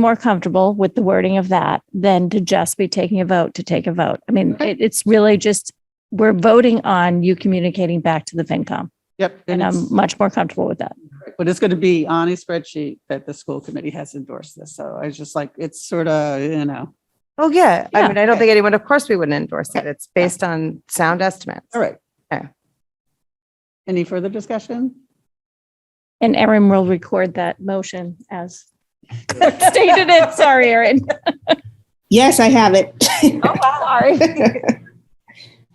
more comfortable with the wording of that than to just be taking a vote to take a vote. I mean, Okay. it, it's really just, we're voting on you communicating back to the FinCom. Yep. And it's- I'm much more comfortable with that. But it's going to be on a spreadsheet that the school committee has endorsed this. So I was just like, it's sort of, you know, Oh, yeah. Yeah. I mean, I don't think anyone, of course, we wouldn't endorse it. It's based on sound estimates. all right. Okay. Any further discussion? And Erin will record that motion as stated it. Sorry, Erin. Yes, I have it. Sorry.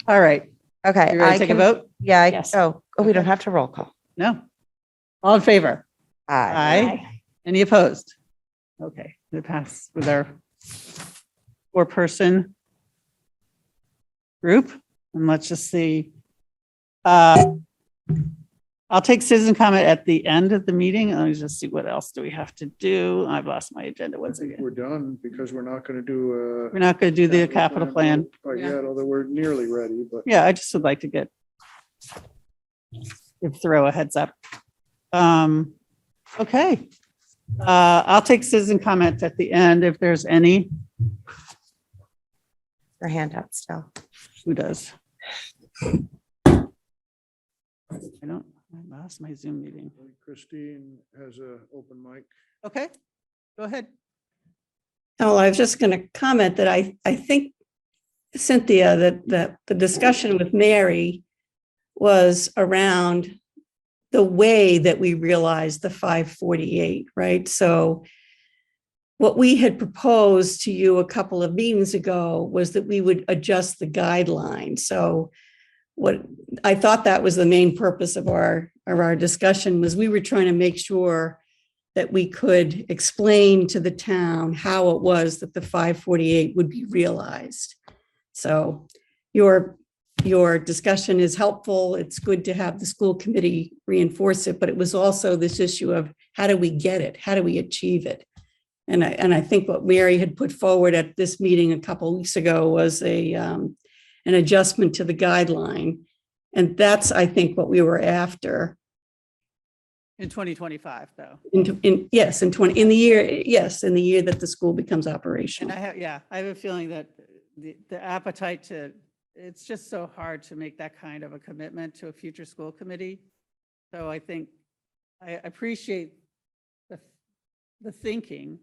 All right. Okay. You I ready to take a can- vote? Yeah. I- Yes. Oh, oh, we don't have to roll call. No. All in favor? Aye. Aye. Any opposed? Okay, it passed with our four-person group. And let's just see. Uh, I'll take citizen comment at the end of the meeting. Let me just see what else do we have to do. I've lost my agenda once again. We're done because we're not going to do uh, We're a. not going to do the capital plan. But yet, although we're nearly ready, but Yeah, I just would like to get give throw a heads up. Um, okay. Uh, I'll take citizen comment at the end if there's any. Your hand up still. Who does? I don't, I lost my Zoom meeting. Christine has a open mic. Okay, go ahead. Oh, I was just going to comment that I, I think Cynthia, that, that the discussion with Mary was around the way that we realized the 548, right? So what we had proposed to you a couple of meetings ago was that we would adjust the guideline. So what, I thought that was the main purpose of our, of our discussion was we were trying to make sure that we could explain to the town how it was that the 548 would be realized. So your, your discussion is helpful. It's good to have the school committee reinforce it, but it was also this issue of how do we get it? How do we achieve it? And I, and I think what Mary had put forward at this meeting a couple weeks ago was a, um, an adjustment to the guideline. And that's, I think, what we were after In 2025 though, in, in, yes, in 20, in the year, yes, in the year that the school becomes and I operational. have, yeah, I have a feeling that the, the appetite to, it's just so hard to make that kind of a commitment to a future school committee. So I think, I appreciate the, the thinking.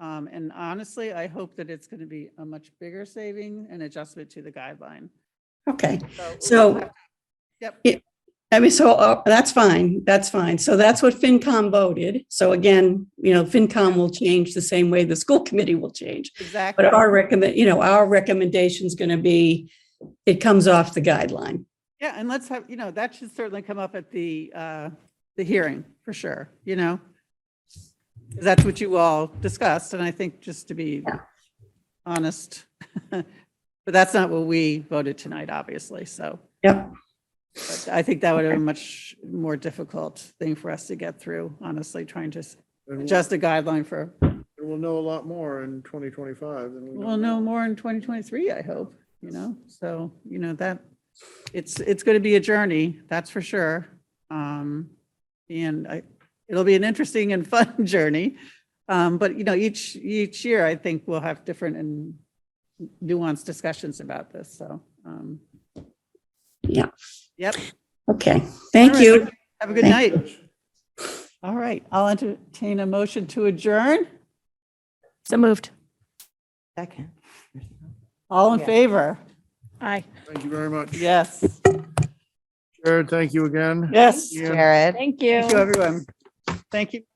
Um, and honestly, I hope that it's going to be a much bigger saving and adjustment to the guideline. Okay, we'll so have- Yep. I mean, so uh, that's fine. That's fine. So that's what FinCom voted. So again, you know, FinCom will change the same way the school committee will change. Exactly. But our recommend, you know, our recommendation is going to be, it comes off the guideline. Yeah, and let's have, you know, that should certainly come up at the, uh, the hearing, for sure, you know? 'Cause That's what you all discussed, and I think just to be honest, but that's not what we voted tonight, obviously, so. Yep. but I think that would have been a much more difficult thing for us to get through, honestly, trying to s- And we'll- adjust a guideline for, and we'll know a lot more in 2025 than we know we'll know now. more in 2023, I hope, you know? So, you know, that, it's, it's going to be a journey, that's for sure. Um And I, it'll be an interesting and fun journey. Um But, you know, each, each year, I think we'll have different and nuanced discussions about this, so. um Yeah. Yep. Okay, thank All right. you. Have a good night. All right, I'll entertain a motion to adjourn. So moved. Second. All in Yeah. favor? Aye. Thank you very much. Yes, Jared, thank you again. yes. Ian, Jared. Thank Thank you, everyone. Thank you.